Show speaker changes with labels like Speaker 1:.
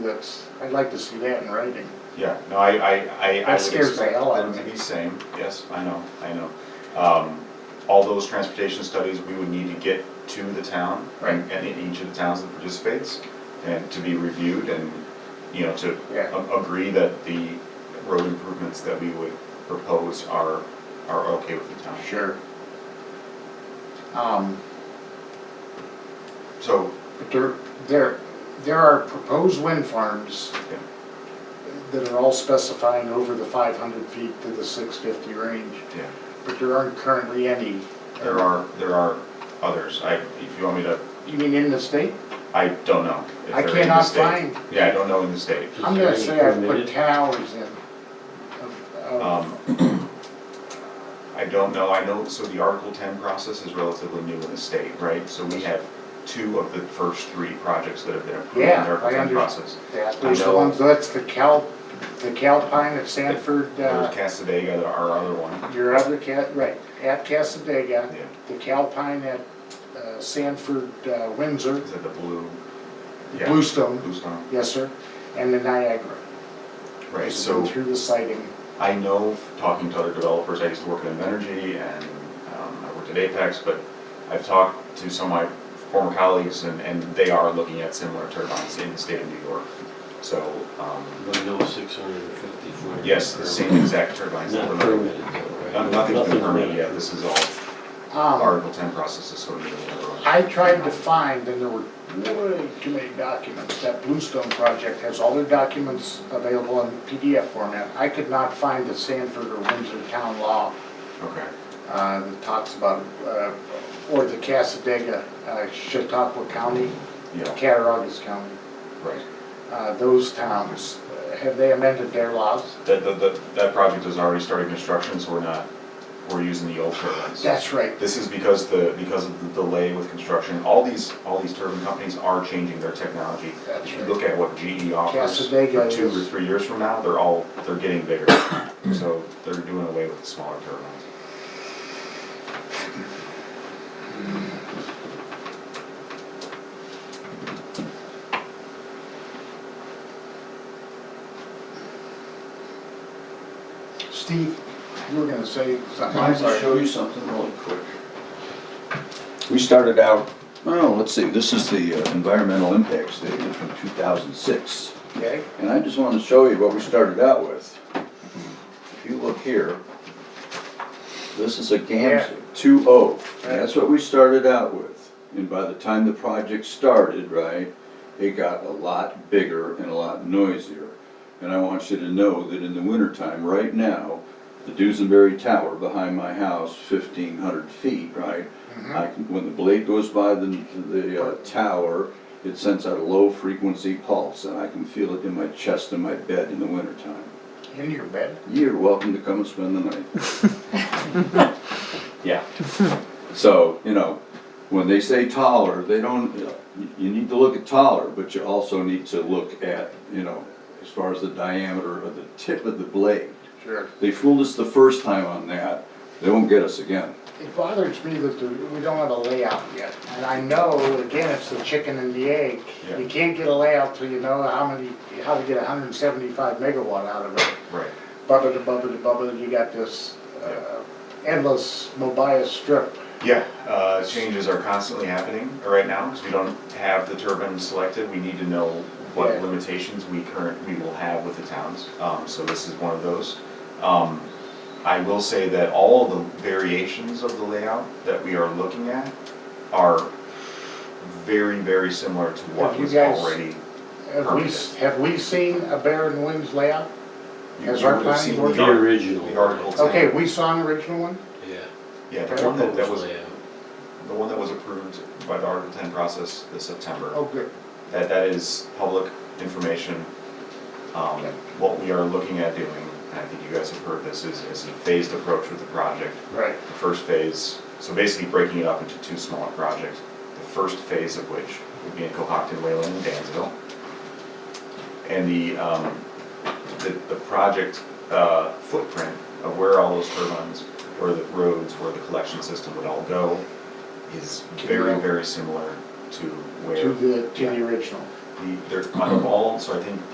Speaker 1: That's, I'd like to see that in writing.
Speaker 2: Yeah, no, I, I, I, I
Speaker 1: That
Speaker 2: would
Speaker 1: scares the
Speaker 2: expect
Speaker 1: hell out
Speaker 2: them
Speaker 1: of
Speaker 2: to
Speaker 1: me.
Speaker 2: be same, yes, I know, I know. Um, all those transportation studies, we would need to get to the town and, and in each of the towns that participates and to be reviewed and, you know, to
Speaker 1: Yeah.
Speaker 2: a- agree that the road improvements that we would propose are, are okay with the town.
Speaker 1: Sure. Um,
Speaker 2: So,
Speaker 1: but there, there, there are proposed wind farms
Speaker 2: yeah,
Speaker 1: that are all specifying over the five hundred feet to the six fifty range,
Speaker 2: yeah,
Speaker 1: but there aren't currently any.
Speaker 2: there are, there are others, I, if you want me to,
Speaker 1: You mean in the state?
Speaker 2: I don't know. if
Speaker 1: I
Speaker 2: they're in the
Speaker 1: cannot
Speaker 2: state.
Speaker 1: find-
Speaker 2: Yeah, I don't know in the state.
Speaker 1: I'm
Speaker 3: there
Speaker 1: gonna
Speaker 3: any
Speaker 1: say I've put
Speaker 3: permitted?
Speaker 1: towers in. of- of-
Speaker 2: Um, I don't know, I know, so the Article ten process is relatively new in the state, right? So we have two of the first three projects that have been approved in
Speaker 1: Yeah,
Speaker 2: the Article
Speaker 1: I
Speaker 2: ten
Speaker 1: under-
Speaker 2: process.
Speaker 1: That, there's
Speaker 2: I
Speaker 1: the
Speaker 2: know-
Speaker 1: ones, that's the Cal, the Calpine at Sanford,
Speaker 2: There's
Speaker 1: uh,
Speaker 2: Casadega, our other one,
Speaker 1: your other cat, right, at Casadega,
Speaker 2: Yeah.
Speaker 1: the Calpine at uh, Sanford, uh, Windsor,
Speaker 2: is it the blue? yeah,
Speaker 1: Bluestone,
Speaker 2: Bluestone,
Speaker 1: yes, sir, and the Niagara.
Speaker 2: right,
Speaker 1: Just
Speaker 2: so.
Speaker 1: been Through the sighting,
Speaker 2: I know, talking to other developers, I used to work at Invenergy and um, I worked at Apex, but I've talked to some of my former colleagues and, and they are looking at similar turbines in the state of New York. So, um,
Speaker 3: But no six hundred and fifty foot.
Speaker 2: yes, the same exact turbines. that
Speaker 3: Not
Speaker 2: were-
Speaker 3: permitted though,
Speaker 2: No-
Speaker 3: right?
Speaker 2: Nothing's been
Speaker 3: Nothing's
Speaker 2: permitted yet, this is all
Speaker 1: Um,
Speaker 2: Article ten process is sort of. the other one.
Speaker 1: I tried to find, and there were way too many documents, that Bluestone project has all their documents available in PDF format. I could not find the Sanford or Windsor town law
Speaker 2: Okay,
Speaker 1: uh, that talks about, uh, or the Casadega, uh, Chautauqua County,
Speaker 2: yeah,
Speaker 1: Cattaraugus County,
Speaker 2: right.
Speaker 1: uh, those towns, uh, have they amended their laws?
Speaker 2: That, that- that, that project has already started construction, so we're not, we're using the old turbines.
Speaker 1: That's right.
Speaker 2: This is because the, because of the delay with construction, all these, all these turbine companies are changing their technology.
Speaker 1: That's
Speaker 2: If you
Speaker 1: right.
Speaker 2: look at what GE offers
Speaker 1: Casadega
Speaker 2: for two or
Speaker 1: is-
Speaker 2: three years from now, they're all, they're getting bigger. So they're doing away with the smaller turbines.
Speaker 1: Steve, you were gonna say something.
Speaker 4: I'd like to show you something really quick. We started out, oh, let's see, this is the uh, environmental impact statement from 2006.
Speaker 1: Okay,
Speaker 4: And I just want to show you what we started out with. If you look here, this is a
Speaker 1: Yeah.
Speaker 4: GAMS 2.0.
Speaker 1: Right.
Speaker 4: That's what we started out with. And by the time the project started, right, it got a lot bigger and a lot noisier. And I want you to know that in the wintertime, right now, the Dusenberry Tower behind my house, 1,500 feet, right? I can, when the blade goes by the, the uh, tower, it sends out a low frequency pulse and I can feel it in my chest and my bed in the wintertime.
Speaker 1: in your bed?
Speaker 4: You're welcome to come and spend the night.
Speaker 2: Yeah.
Speaker 4: So, you know, when they say taller, they don't, you know, you- you need to look at taller, but you also need to look at, you know, as far as the diameter of the tip of the blade.
Speaker 1: Sure.
Speaker 4: They fooled us the first time on that, they won't get us again.
Speaker 1: It bothers me that there- we don't have a layout yet. And I know, again, it's the chicken and the egg.
Speaker 2: Yeah.
Speaker 1: You can't get a layout till you know how many, how to get hundred and seventy-five megawatt out of it.
Speaker 2: Right.
Speaker 1: Bubba to bubba to bubba, you got this uh, endless Mobius strip.
Speaker 2: Yeah, uh, changes are constantly happening right now, because we don't have the turbine selected, we need to know
Speaker 1: Yeah.
Speaker 2: what limitations we current, we will have with the towns, um, so this is one of those. Um, I will say that all the variations of the layout that we are looking at are very, very similar to what
Speaker 1: Have you
Speaker 2: was
Speaker 1: guys-
Speaker 2: already.
Speaker 1: Have we, s- have we seen a Barren Winds layout?
Speaker 2: you-
Speaker 1: Has
Speaker 2: you
Speaker 1: our
Speaker 2: would've
Speaker 1: planning
Speaker 2: seen
Speaker 1: board-
Speaker 2: the
Speaker 3: The
Speaker 2: art-
Speaker 3: original.
Speaker 2: The Article ten.
Speaker 1: Okay, we saw an original one?
Speaker 3: Yeah.
Speaker 2: Yeah, the one that, that was,
Speaker 3: Proposed layout.
Speaker 2: the one that was approved by the Article ten process this September.
Speaker 1: Oh, good.
Speaker 2: that that is public information. Um, what we are looking at doing, and I think you guys have heard this, is, is a phased approach with the project.
Speaker 1: Right.
Speaker 2: The first phase, so basically breaking it up into two smaller projects, the first phase of which would be in Cohocton, Wayland, and Dansville. And the, um, the, the project, uh, footprint of where all those turbines, where the roads, where the collection system would all go is very, very similar to where.
Speaker 1: To the, to
Speaker 2: Yeah.
Speaker 1: the original.
Speaker 2: the, they're on the ball, so I think